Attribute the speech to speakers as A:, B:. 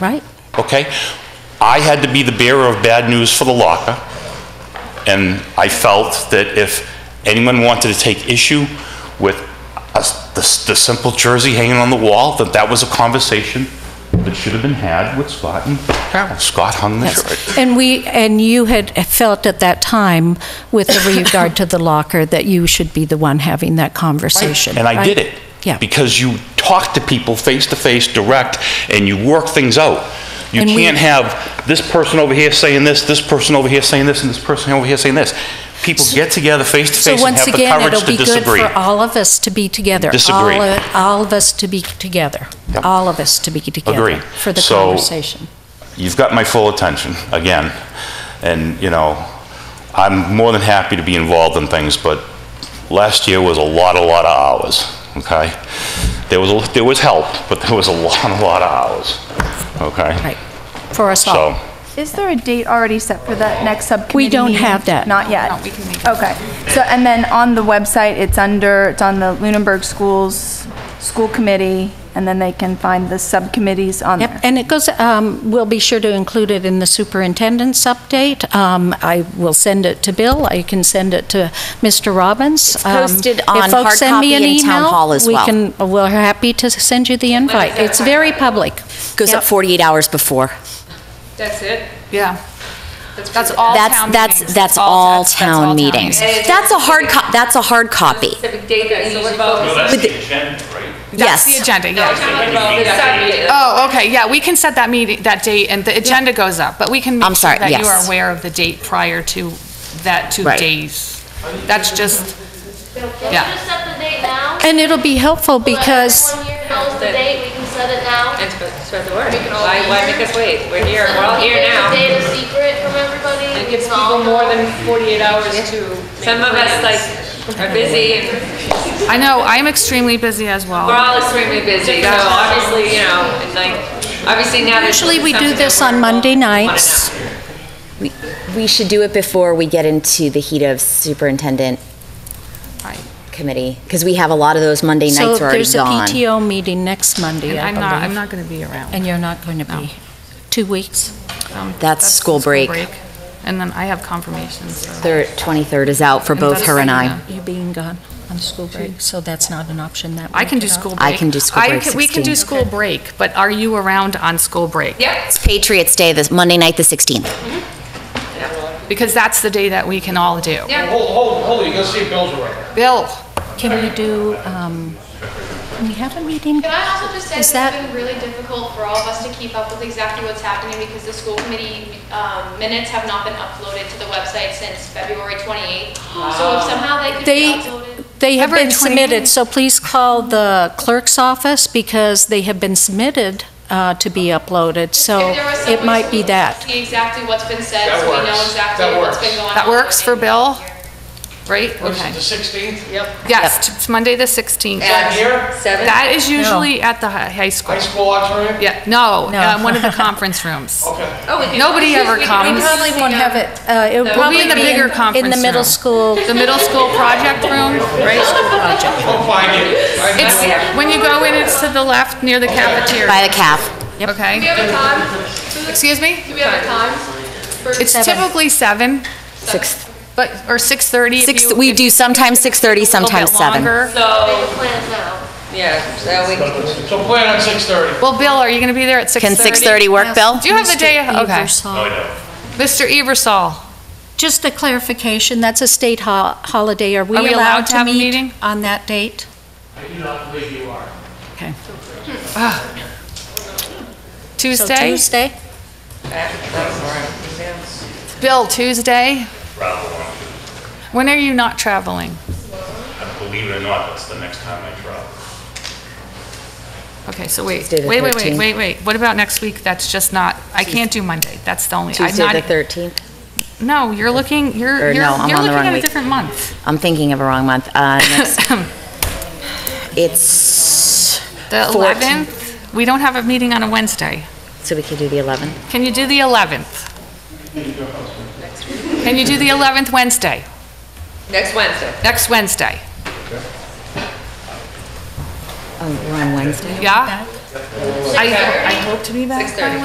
A: right?
B: okay? I had to be the bearer of bad news for the locker, and I felt that if anyone wanted to take issue with us- the the simple jersey hanging on the wall, that that was a conversation that should have been had with Scott and Carol. Scott hung the
A: Yes.
B: jersey.
A: And we, and you had felt at that time with regard to the locker that you should be the one having that conversation.
B: And I
A: right?
B: did it.
A: Yeah.
B: Because you talk to people face-to-face, direct, and you work things out. You
A: And we-
B: can't have this person over here saying this, this person over here saying this, and this person over here saying this. People get together
A: So
B: face-to-face and
A: once
B: have the
A: again,
B: courage
A: it'll
B: to
A: be good
B: disagree.
A: for all of us to be together.
B: Disagree.
A: All of- All of us to be together.
B: Yep.
A: All of us to be together.
B: Agree.
A: For the
B: So-
A: conversation.
B: You've got my full attention, again. And, you know, I'm more than happy to be involved in things, but last year was a lot, a lot of hours, okay? There was, a- there was help, but there was a lot, a lot of hours, okay?
A: Right. For us all.
B: So,
C: Is there a date already set for that next subcommittee
A: We don't
C: meeting?
A: have that.
C: Not yet?
D: No, we can make it.
C: Okay. So, and then on the website, it's under, it's on the Lunenburg Schools School Committee, and then they can find the subcommittees on there.
A: Yep, and it goes, um, we'll be sure to include it in the superintendent's update. Um, I will send it to Bill, I can send it to Mr. Robbins. Um, It's
D: posted on hard copy in Town Hall as
A: We
D: well.
A: can, we're happy to send you the invite. It's very public.
E: Goes up
A: Yep.
E: 48 hours before.
F: That's it?
D: Yeah.
F: That's all
E: That's, that's, that's all town meetings. That's a hard, co- that's a hard copy.
F: Specific date that you vote.
B: that's the agenda, right?
D: That's the
E: Yes.
D: agenda,
F: No, I'm
D: yeah.
F: talking about the subject.
D: Oh, okay, yeah, we can set that meeting, that date, and the agenda goes up, but we can
E: I'm
D: make sure
E: sorry,
D: that you
E: yes.
D: are aware of the date prior to that two
E: Right.
D: days. That's just, yeah.
G: Just set the date now.
A: And it'll be helpful because,
G: Everyone here knows the date, we can set it now.
F: And sp- spread the word. Why, why make us wait? We're here, we're all here
G: Keep
F: now.
G: the data secret from everybody.
F: It gives people more than 48 hours to. Some of us like are busy and
D: I know, I'm extremely busy as
F: we're
D: well.
F: all extremely busy, so obviously, you know, and like, obviously now. there's
A: usually we do
F: something
A: this
F: that
A: on
F: we're all
A: Monday
F: wanna know.
A: nights.
E: We- We should do it before we get into the heat of superintendent
D: Right.
E: committee, because we have a lot of those Monday
A: So
E: nights are already
A: there's a
E: gone.
A: PTO meeting next Monday,
D: And
A: I
D: I'm not, I'm
A: believe.
D: not going to be around.
A: And you're not going to be. Two weeks?
D: Um,
E: That's
D: the
E: school break.
D: And then I have confirmations, so.
E: Thir- 23rd is out for
D: And
E: both
D: that's-
E: her and I.
D: yeah.
A: You being gone on school break, so that's not an option that.
D: I can
A: week
D: do
A: at all.
D: school break.
E: I can do school
D: I
E: break
D: can- We can
E: 16.
D: do school break, but are you around on school break?
F: Yep.
E: It's Patriots Day, this Monday night, the 16th.
D: Because that's the day that we can all do.
F: Yeah.
H: Hold, hold, hold, you gotta see if Bill's awake.
D: Bill,
A: Can we do, um, can we have a meeting?
I: Can I also just say
A: Is
I: that
A: that-
I: it's been really difficult for all of us to keep up with exactly what's happening because the school committee um, minutes have not been uploaded to the website since February 28th. So if somehow they could be
A: They,
I: uploaded.
A: they have been
D: February 28th.
A: submitted, so please call the clerk's office because they have been submitted uh, to be uploaded, so
I: if there was some
A: it
I: way
A: might
I: to
A: be that.
I: See exactly what's been said,
H: That
I: so we
H: works.
I: know exactly
H: That
I: what's
H: works.
I: been going on.
D: that works for Bill? Right?
H: What is
D: Okay.
H: it, the 16th?
D: Yes, t- it's Monday, the 16th.
H: Not here?
F: Seven?
D: That is usually at the hi- high school.
H: High school auditorium?
D: Yeah, no,
A: No.
D: um, one of the conference rooms.
H: Okay.
F: Oh, we can-
D: Nobody ever
F: we can- we
D: comes. probably
F: can-
A: won't have it, it
F: We'll be in the
D: bigger
A: In the
D: conference
A: middle
D: room.
A: school.
D: The middle school project room, right?
H: I'll find it. I-
D: It's, when you go in, it's to the left near the
E: By
D: cafeteria,
E: the calf.
I: Do we
D: okay?
I: have a time?
D: Excuse me?
I: Do we have a time? for-
D: It's
A: Seven.
D: typically seven,
E: Six.
D: but, or 6:30 if
E: Six,
D: you-
E: we
D: if you
E: do sometimes 6:30,
D: go a little bit
E: sometimes 7.
D: longer.
F: So,
G: Plan it now.
F: yeah, so we
H: So plan on 6:30.
D: Well, Bill, are you going to be there at 6:30?
E: Can 6:30 work, Bill?
D: Do you have the day?
A: Mr.
D: Okay.
A: Ebersol.
D: Mr. Eversol,
A: Just a clarification, that's a state ho- holiday. Are we
D: Are we
A: allowed to
D: have a
A: meet
D: meeting?
A: on that date? So
D: Tuesday?
A: Tuesday?
D: Bill, Tuesday? When are you not traveling?
B: Believe it or not, that's the next time I travel.
D: Okay, so wait,
E: Tuesday the
D: wait, wait, wait,
E: 13th.
D: wait, wait. What about next week? That's just not, I can't do Monday. That's the only, I'm not, e-,
E: 13th.
D: no, you're looking, you're,
E: Or
D: you're
E: no, I'm
D: you're
E: on the
D: looking
E: wrong
D: at a
E: week.
D: different month.
E: I'm thinking of a wrong month. Uh, next- It's,
D: The
E: 14th.
D: 11th, we don't have a meeting on a Wednesday.
E: so we could do the 11th.
D: Can you do the 11th? Can you do the 11th Wednesday,
F: next Wednesday.
D: next Wednesday?
E: Oh, we're on Wednesday?
D: Yeah? I, I hope to be back by